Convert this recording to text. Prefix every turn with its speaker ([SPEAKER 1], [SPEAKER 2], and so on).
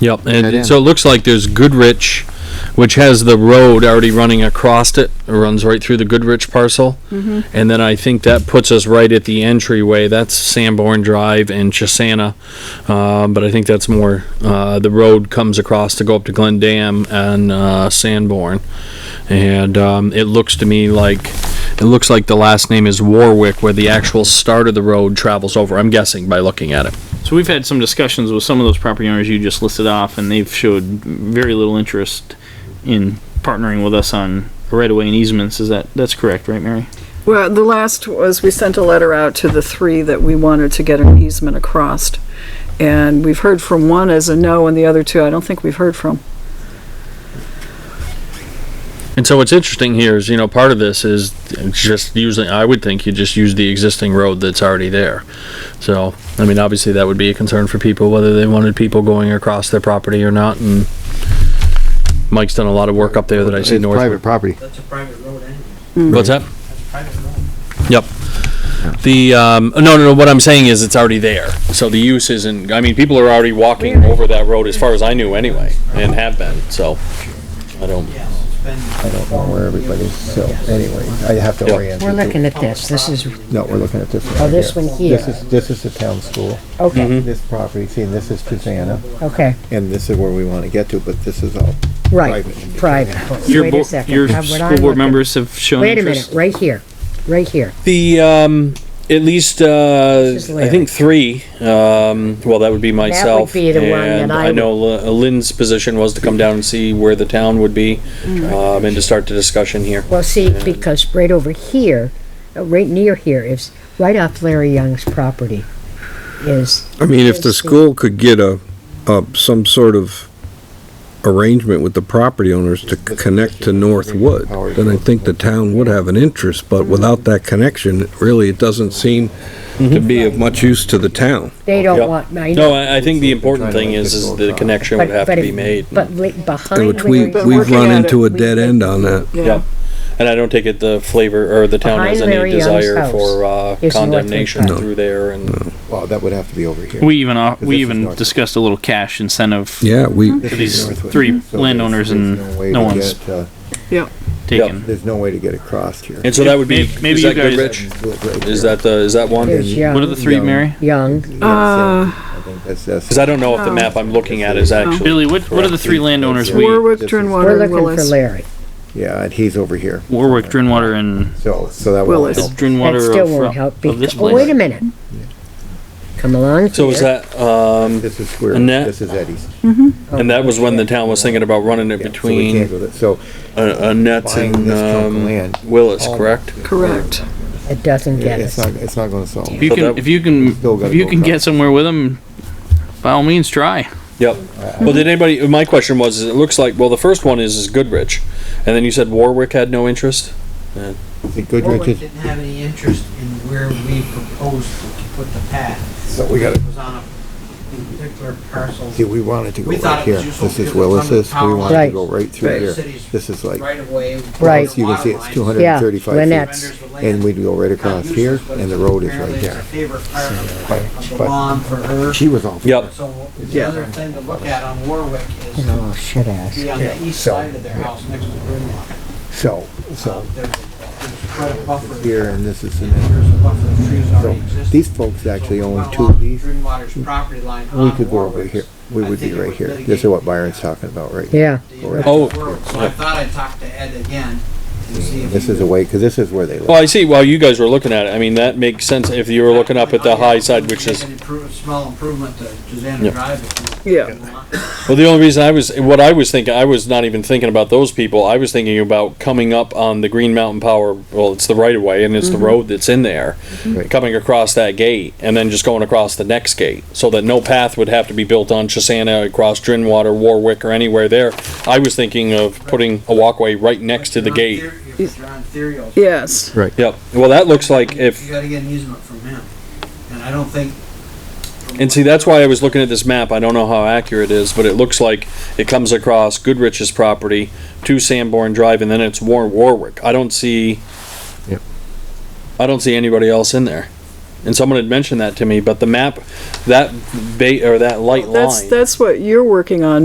[SPEAKER 1] Yep,
[SPEAKER 2] That
[SPEAKER 1] and
[SPEAKER 2] end.
[SPEAKER 1] so it looks like there's Goodrich, which has the road already running across it, It runs right through the Goodrich parcel. And then I think that puts us right at the entryway, that's Sanborn Drive and Chisana. Um, but I think that's more, uh, the road comes across to go up to Glen Dam and, uh, Sanborn. And, um, it looks to me like, it looks like the last name is Warwick, where the actual start of the road travels over, I'm guessing by looking at it.
[SPEAKER 3] So we've had some discussions with some of those property owners you just listed off, and they've showed very little interest in partnering with us on right-of-way and easements. Is that, that's correct, right, Mary?
[SPEAKER 4] Well, the last was, we sent a letter out to the three that we wanted to get an easement across. And we've heard from one as a no, and the other two, I don't think we've heard from.
[SPEAKER 1] And so what's interesting here is, you know, part of this is just using, I would think you just use the existing road that's already there. So, I mean, obviously that would be a concern for people, whether they wanted people going across their property or not, and Mike's done a lot of Mm-hmm. work up there that I see
[SPEAKER 2] It's private
[SPEAKER 1] north.
[SPEAKER 2] property.
[SPEAKER 5] That's a private road anyway.
[SPEAKER 1] What's that?
[SPEAKER 5] That's a private road.
[SPEAKER 1] Yep. The, um, no, no, no, what I'm saying is it's already there. So the use isn't, I mean, people are already walking over that road as far as I knew anyway, and have been, so. I don't,
[SPEAKER 5] Yes, it's been.
[SPEAKER 6] I don't know where everybody's, so anyway, I have to
[SPEAKER 1] Yeah.
[SPEAKER 6] orient.
[SPEAKER 7] We're
[SPEAKER 6] you to-
[SPEAKER 7] looking at this, this is,
[SPEAKER 6] No, we're looking at this one.
[SPEAKER 7] Oh,
[SPEAKER 6] right
[SPEAKER 7] this one here.
[SPEAKER 6] This is, this is the town school.
[SPEAKER 7] okay,
[SPEAKER 6] This property, see, and this is Susanna,
[SPEAKER 3] Mm-hmm.
[SPEAKER 7] okay,
[SPEAKER 6] and this is where we want to get to, but this is all
[SPEAKER 7] right,
[SPEAKER 6] Private.
[SPEAKER 7] private.
[SPEAKER 3] Your
[SPEAKER 7] Wait
[SPEAKER 3] bo-
[SPEAKER 7] a second.
[SPEAKER 3] Your
[SPEAKER 7] I'm- what I'm
[SPEAKER 3] school board
[SPEAKER 7] looking-
[SPEAKER 3] members have shown
[SPEAKER 7] Wait a minute,
[SPEAKER 3] interest?
[SPEAKER 7] right here, right here.
[SPEAKER 1] The um, at least uh,
[SPEAKER 7] This is
[SPEAKER 1] I think three. Um, well, that would be myself.
[SPEAKER 7] be the one that
[SPEAKER 1] and
[SPEAKER 7] I
[SPEAKER 1] I know Li- Lynn's position was to come down and see where the town would be,
[SPEAKER 7] Mm-hmm.
[SPEAKER 1] um, and to start the discussion here.
[SPEAKER 7] Well, see, because right over here, uh, right near here is, right off Larry Young's property is,
[SPEAKER 8] I mean, if the
[SPEAKER 7] Yes, we-
[SPEAKER 8] school could get a, a, some sort of arrangement with the property owners to connect to Northwood, then I think the town would have an interest, but without that connection, really, it doesn't seem to be of much use to the town.
[SPEAKER 7] they
[SPEAKER 1] Yep.
[SPEAKER 7] don't want, I
[SPEAKER 1] No,
[SPEAKER 7] know.
[SPEAKER 1] I, I think the important thing is is the connection would
[SPEAKER 7] but-
[SPEAKER 1] have to
[SPEAKER 7] but
[SPEAKER 1] be
[SPEAKER 7] if-
[SPEAKER 1] made.
[SPEAKER 7] But li- behind.
[SPEAKER 8] Which we,
[SPEAKER 7] Larry-
[SPEAKER 4] But
[SPEAKER 8] we've
[SPEAKER 4] working
[SPEAKER 8] run
[SPEAKER 4] at
[SPEAKER 8] into a
[SPEAKER 4] it, we
[SPEAKER 8] dead
[SPEAKER 4] could-
[SPEAKER 8] end on that.
[SPEAKER 1] Yeah. And I don't take it the flavor or the town has
[SPEAKER 7] Behind
[SPEAKER 1] any
[SPEAKER 7] Larry Young's
[SPEAKER 1] desire
[SPEAKER 7] house
[SPEAKER 1] for uh,
[SPEAKER 7] is Northwood
[SPEAKER 1] condemnation
[SPEAKER 7] Park.
[SPEAKER 1] through there and.
[SPEAKER 6] Well, that would have to be over here.
[SPEAKER 3] We even, off-
[SPEAKER 6] Because
[SPEAKER 3] we
[SPEAKER 6] this is
[SPEAKER 3] even
[SPEAKER 6] north.
[SPEAKER 3] discussed a little cash incentive
[SPEAKER 8] Yeah, we,
[SPEAKER 6] This
[SPEAKER 3] to
[SPEAKER 6] is
[SPEAKER 3] these
[SPEAKER 6] Northwood.
[SPEAKER 3] three
[SPEAKER 6] So there's-
[SPEAKER 3] landowners
[SPEAKER 6] there's
[SPEAKER 3] and
[SPEAKER 6] way
[SPEAKER 3] no
[SPEAKER 6] to
[SPEAKER 3] one's
[SPEAKER 6] get, uh,
[SPEAKER 4] Yeah.
[SPEAKER 3] taken.
[SPEAKER 6] There's no way to get across here.
[SPEAKER 1] And so that would be,
[SPEAKER 3] Maybe- maybe
[SPEAKER 1] is
[SPEAKER 3] you
[SPEAKER 1] that
[SPEAKER 3] guys-
[SPEAKER 1] Goodrich?
[SPEAKER 6] Right
[SPEAKER 1] Is
[SPEAKER 6] there.
[SPEAKER 1] that the, is that one?
[SPEAKER 7] There's
[SPEAKER 1] Cause
[SPEAKER 6] Yeah.
[SPEAKER 3] What are the
[SPEAKER 7] Young,
[SPEAKER 3] three,
[SPEAKER 6] Young.
[SPEAKER 3] Mary?
[SPEAKER 7] Young,
[SPEAKER 6] Yes, uh, I think that's- that's-
[SPEAKER 1] I don't know if the map I'm looking at is actually.
[SPEAKER 3] Billy, what, what are the three landowners we,
[SPEAKER 4] Warwick,
[SPEAKER 6] this is-
[SPEAKER 4] Drinwater,
[SPEAKER 7] we're
[SPEAKER 4] and
[SPEAKER 7] looking for
[SPEAKER 4] Willis.
[SPEAKER 7] Larry.
[SPEAKER 6] Yeah, and he's over here,
[SPEAKER 3] Warwick, Drinwater, and
[SPEAKER 6] so, so that will
[SPEAKER 4] Willis.
[SPEAKER 6] help.
[SPEAKER 3] Drinwater
[SPEAKER 7] That still won't help,
[SPEAKER 3] uh, of- of this
[SPEAKER 7] because, oh, wait a
[SPEAKER 3] place?
[SPEAKER 7] minute. Come along
[SPEAKER 1] So is
[SPEAKER 7] here.
[SPEAKER 1] that, um,
[SPEAKER 6] This is where,
[SPEAKER 1] Annette?
[SPEAKER 6] this is Eddie's.
[SPEAKER 1] And that was when the town was thinking about running it
[SPEAKER 6] Yeah, so we can't
[SPEAKER 1] between
[SPEAKER 6] go that- So
[SPEAKER 1] uh, Annette's
[SPEAKER 6] buying
[SPEAKER 1] and
[SPEAKER 6] this chunk of
[SPEAKER 1] um,
[SPEAKER 6] land. Oh,
[SPEAKER 1] Willis, correct?
[SPEAKER 4] Correct.
[SPEAKER 7] It doesn't get
[SPEAKER 6] It's
[SPEAKER 7] us.
[SPEAKER 6] not, it's not gonna solve.
[SPEAKER 3] If you
[SPEAKER 1] So
[SPEAKER 3] can,
[SPEAKER 1] that-
[SPEAKER 3] if you can,
[SPEAKER 6] Still gotta
[SPEAKER 3] if you
[SPEAKER 6] go
[SPEAKER 3] can get
[SPEAKER 6] across.
[SPEAKER 3] somewhere with them, by all means, try.
[SPEAKER 1] Yep. Well, did anybody, my question was, is it looks like, well, the first one is, is Goodrich. And then you said Warwick had no interest?
[SPEAKER 6] The Goodrich
[SPEAKER 5] Warwick
[SPEAKER 6] is,
[SPEAKER 5] didn't have any interest in where we proposed to put the path.
[SPEAKER 6] so we gotta,
[SPEAKER 5] It was on a particular parcel.
[SPEAKER 6] see, we wanted to go
[SPEAKER 5] We thought
[SPEAKER 6] right
[SPEAKER 5] it
[SPEAKER 6] here.
[SPEAKER 5] was useful
[SPEAKER 6] This is
[SPEAKER 5] because we're from the
[SPEAKER 6] Willis's, we
[SPEAKER 5] town
[SPEAKER 6] wanted to
[SPEAKER 7] line.
[SPEAKER 6] go right through
[SPEAKER 5] Right.
[SPEAKER 6] here.
[SPEAKER 5] Cities
[SPEAKER 6] This is like,
[SPEAKER 5] Right away.
[SPEAKER 7] Right.
[SPEAKER 6] you can see it's two hundred
[SPEAKER 7] Yeah,
[SPEAKER 6] and thirty-five
[SPEAKER 7] Lynette's.
[SPEAKER 6] feet. And we'd go right across here, and the road is right there.
[SPEAKER 5] Favorite part of-
[SPEAKER 6] But,
[SPEAKER 5] of the
[SPEAKER 6] but
[SPEAKER 5] lawn for her.
[SPEAKER 6] she was all. for
[SPEAKER 1] Yep.
[SPEAKER 5] So the
[SPEAKER 6] Yeah.
[SPEAKER 5] other thing to look at on Warwick is
[SPEAKER 7] Oh, shit ass.
[SPEAKER 5] be on the east
[SPEAKER 6] So-
[SPEAKER 5] side of their house next to Grimlock.
[SPEAKER 6] it. So, so
[SPEAKER 5] There's a- there's quite a buffer.
[SPEAKER 6] here, and this is, an-
[SPEAKER 5] There's a buffer of trees
[SPEAKER 6] so
[SPEAKER 5] already existing.
[SPEAKER 6] these folks actually own two of these.
[SPEAKER 5] Greenwater's property line
[SPEAKER 6] We
[SPEAKER 5] on
[SPEAKER 6] could go over
[SPEAKER 5] Warwick's.
[SPEAKER 6] here. We
[SPEAKER 5] I
[SPEAKER 6] would be
[SPEAKER 5] think it
[SPEAKER 6] right
[SPEAKER 5] would
[SPEAKER 6] here.
[SPEAKER 5] mitigate-
[SPEAKER 6] This is what Byron's talking about right here.
[SPEAKER 7] Yeah,
[SPEAKER 5] the impact
[SPEAKER 1] Oh.
[SPEAKER 5] of Warwick. So I thought I'd talk to Ed again and see if.
[SPEAKER 6] This
[SPEAKER 5] he
[SPEAKER 6] is the way, because this is where they live.
[SPEAKER 1] Well, I see, while you guys were looking at it, I mean, that makes sense if you were looking up at the high side, which
[SPEAKER 5] Make
[SPEAKER 1] is,
[SPEAKER 5] an improve- Small improvement to
[SPEAKER 1] Yeah.
[SPEAKER 5] Susanna Drive. if you-
[SPEAKER 4] Yeah.
[SPEAKER 5] if you want.
[SPEAKER 1] well, the only reason I was, what I was thinking, I was not even thinking about those people. I was thinking about coming up on the Green Mountain Power, well, it's the right of way and it's the road that's in there.
[SPEAKER 6] Right.
[SPEAKER 1] coming across that gate and then just going across the next gate, so that no path would have to be built on Chisana, across Drinwater, Warwick, or anywhere there. I was thinking of putting a walkway right next to the
[SPEAKER 5] If you're on
[SPEAKER 1] gate.
[SPEAKER 5] Theriot- If you're on Theriot,
[SPEAKER 4] Yes.
[SPEAKER 1] Yep, well, that looks like
[SPEAKER 5] You
[SPEAKER 1] if,
[SPEAKER 5] gotta get an easement from him, and I don't think.
[SPEAKER 1] and see, that's why I was looking at this map, I don't know how accurate it is, but it looks like it comes across Goodrich's property to Sanborn Drive, and then it's War Warwick. I don't see,
[SPEAKER 2] Yep.
[SPEAKER 1] I don't see anybody else in there. And someone had mentioned that to me, but the map, that ba, or that light line.
[SPEAKER 4] That's, that's what you're working on,